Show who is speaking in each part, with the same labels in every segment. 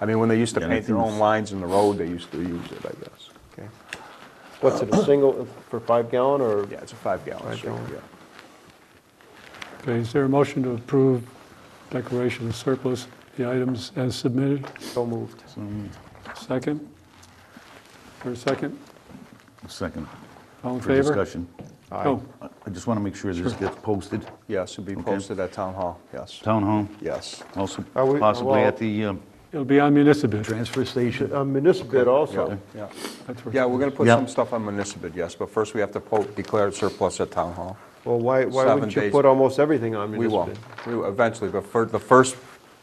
Speaker 1: I mean, when they used to
Speaker 2: Yeah,
Speaker 1: paint their own lines in the road, they used to use it, I guess.
Speaker 3: Okay. What's it, a single, for five gallon or?
Speaker 1: Yeah, it's a five gallon
Speaker 3: Five
Speaker 1: stick,
Speaker 3: gallon.
Speaker 1: yeah.
Speaker 4: Okay, is there a motion to approve declaration of surplus, the items as submitted?
Speaker 3: So moved.
Speaker 4: Second? For a second?
Speaker 2: Second.
Speaker 4: All in
Speaker 2: For
Speaker 4: favor?
Speaker 2: discussion.
Speaker 4: Oh,
Speaker 2: I I just want to make sure this gets posted.
Speaker 1: Yes, it'd be posted at town hall, yes,
Speaker 2: Town hall,
Speaker 1: yes.
Speaker 2: also
Speaker 3: Are we-
Speaker 2: possibly
Speaker 3: well-
Speaker 2: at the um,
Speaker 4: It'll be on municipal.
Speaker 2: transfer station.
Speaker 3: A uh, municipal bid
Speaker 1: Yeah,
Speaker 3: also.
Speaker 1: yeah.
Speaker 4: That's where-
Speaker 1: Yeah, we're gonna put
Speaker 2: Yeah.
Speaker 1: some stuff on municipal, yes, but first we have to po- declare it surplus at town hall.
Speaker 3: Well, why, why
Speaker 1: Seven
Speaker 3: wouldn't you
Speaker 1: days.
Speaker 3: put almost everything on
Speaker 1: We
Speaker 3: municipal
Speaker 1: will,
Speaker 3: bid?
Speaker 1: we will eventually, but for, the first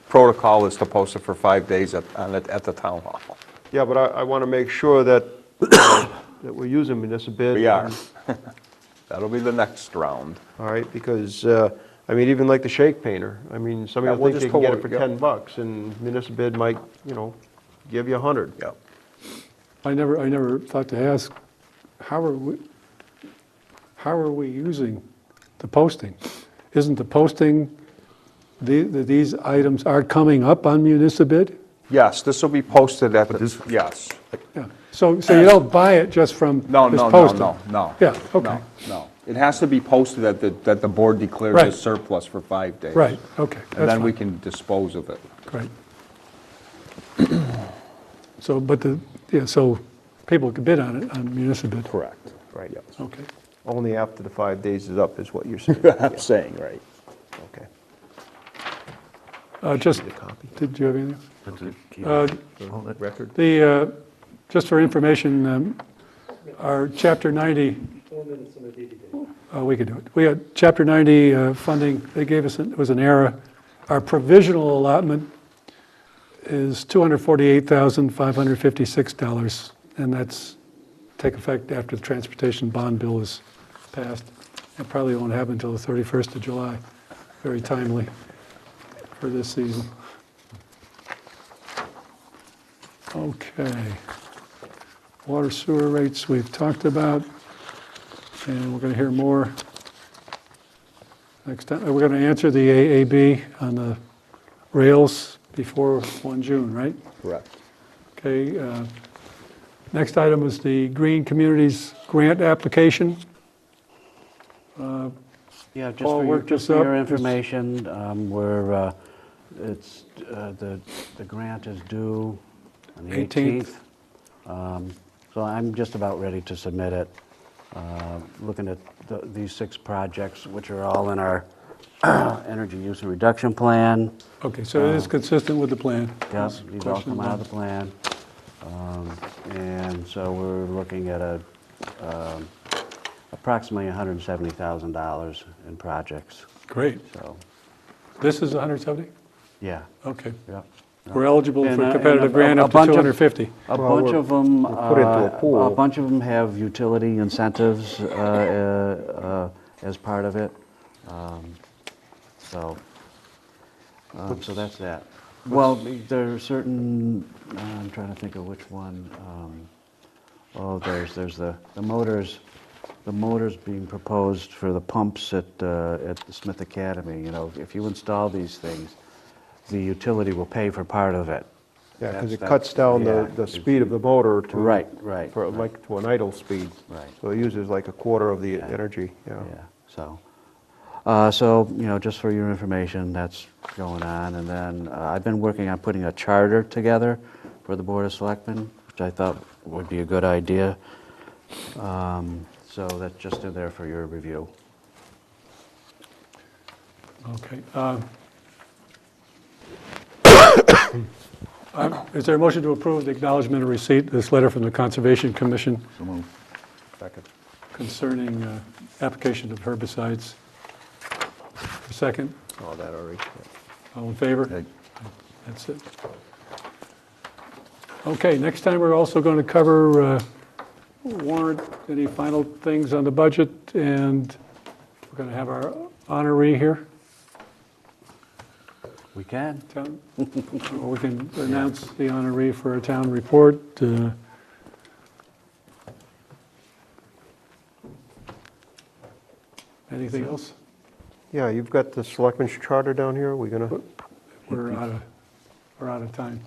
Speaker 1: protocol is to post it for five days at, on it- at the town hall.
Speaker 3: Yeah, but I, I want to make sure that, that we're using municipal bid.
Speaker 1: We are. That'll be the next round.
Speaker 3: All right, because, uh, I mean, even like the shake painter, I mean,
Speaker 1: Yeah,
Speaker 3: somebody will
Speaker 1: we'll
Speaker 3: think they
Speaker 1: just
Speaker 3: can get it
Speaker 1: pull
Speaker 3: for
Speaker 1: it, yeah.
Speaker 3: 10 bucks, and municipal bid might, you know, give you 100.
Speaker 1: Yep.
Speaker 4: I never, I never thought to ask, how are we, how are we using the posting? Isn't the posting, the- that these items are coming up on municipal bid?
Speaker 1: Yes, this will be posted at,
Speaker 2: this-
Speaker 1: the yes.
Speaker 4: Yeah. So, so you don't buy it just from this
Speaker 1: No,
Speaker 4: posting?
Speaker 1: no, no, no, no.
Speaker 4: Yeah, okay.
Speaker 1: No, No, it has to be posted that the, that the board declares
Speaker 4: Right.
Speaker 1: as surplus for five days.
Speaker 4: Right, okay.
Speaker 1: And
Speaker 4: that's
Speaker 1: then we
Speaker 4: fine.
Speaker 1: can dispose of it.
Speaker 4: Great. So, but the, yeah, so people could bid on it, on municipal bid.
Speaker 1: Correct.
Speaker 3: Right.
Speaker 4: Okay.
Speaker 3: Only after the five days is up is what you're saying.
Speaker 1: I'm saying, right.
Speaker 3: Okay.
Speaker 4: Uh, Just,
Speaker 3: Need a copy?
Speaker 4: did you have anything?
Speaker 2: Uh,
Speaker 3: Record?
Speaker 4: The, uh, just for information, um, our Chapter 90. Uh, We could do it. We had Chapter 90 uh, funding, they gave us, an- it was an error. Our provisional allotment is $248,556, and that's take effect after the transportation bond bill is passed. It probably won't happen until the 31st of July. Very timely for this season. Okay. Water sewer rates we've talked about, and we're going to hear more next time. We're going to answer the AAB on the rails before 1 June, right?
Speaker 1: Correct.
Speaker 4: Okay. uh, Next item is the Green Communities Grant application.
Speaker 5: Yeah, just
Speaker 4: Paul
Speaker 5: for your,
Speaker 4: worked
Speaker 5: just
Speaker 4: this
Speaker 5: for your
Speaker 4: up.
Speaker 5: information, um, we're, uh, it's, uh, the, the grant is due on the
Speaker 4: 18th.
Speaker 5: 18th. Um, So I'm just about ready to submit it. Uh, Looking at the- these six projects, which are all in our energy use and reduction plan.
Speaker 4: Okay, so it is consistent with the plan.
Speaker 5: Uh-huh. Yep, these all
Speaker 4: Question
Speaker 5: come out of
Speaker 4: one.
Speaker 5: the plan. Um, And so we're looking at a, um, approximately $170,000 in projects,
Speaker 4: Great.
Speaker 5: so,
Speaker 4: This is 170?
Speaker 5: yeah,
Speaker 4: Okay.
Speaker 5: yep.
Speaker 4: We're eligible
Speaker 5: And, uh,
Speaker 4: for
Speaker 5: and
Speaker 4: competitive
Speaker 5: a-
Speaker 4: grant
Speaker 5: a
Speaker 4: up to
Speaker 5: bunch of-
Speaker 4: 250.
Speaker 5: A
Speaker 3: Well,
Speaker 5: bunch
Speaker 3: we're-
Speaker 5: of them,
Speaker 3: we're put into a
Speaker 5: a
Speaker 3: pool.
Speaker 5: bunch of them have utility incentives uh, uh, uh, as part of it. Um, So, um, so that's that. Well, there are certain, uh, I'm trying to think of which one. um, Oh, there's, there's the, the motors, the motors being proposed for the pumps at, uh, at the Smith Academy. You know, if you install these things, the utility will pay for part of it.
Speaker 3: Yeah, because
Speaker 5: That's-
Speaker 3: it
Speaker 5: that's-
Speaker 3: cuts down
Speaker 5: yeah,
Speaker 3: the, the speed of the motor to.
Speaker 5: Right, right,
Speaker 3: For like, to an idle speed.
Speaker 5: Right.
Speaker 3: So it uses like a quarter of the energy, yeah.
Speaker 5: Yeah, so, uh, so, you know, just for your information, that's going on. And then uh, I've been working on putting a charter together for the Board of Selectmen, which I thought would be a good idea. Um, So that's just in there for your review.
Speaker 4: Okay. um, uh, Is there a motion to approve the acknowledgement of receipt, this letter from the Conservation Commission
Speaker 2: So moved.
Speaker 1: Second.
Speaker 4: concerning uh, application of herbicides? Second,
Speaker 3: All that already. yeah.
Speaker 4: all in favor?
Speaker 2: Okay.
Speaker 4: That's it. Okay, next time, we're also going to cover uh, warrant, any final things on the budget, and we're going to have our honoree here.
Speaker 5: We can.
Speaker 4: Town- or We can announce the honoree for a town report. uh, Anything else?
Speaker 3: Yeah, you've got the selectmen's charter down here, we gonna?
Speaker 4: We're out of, we're out of time.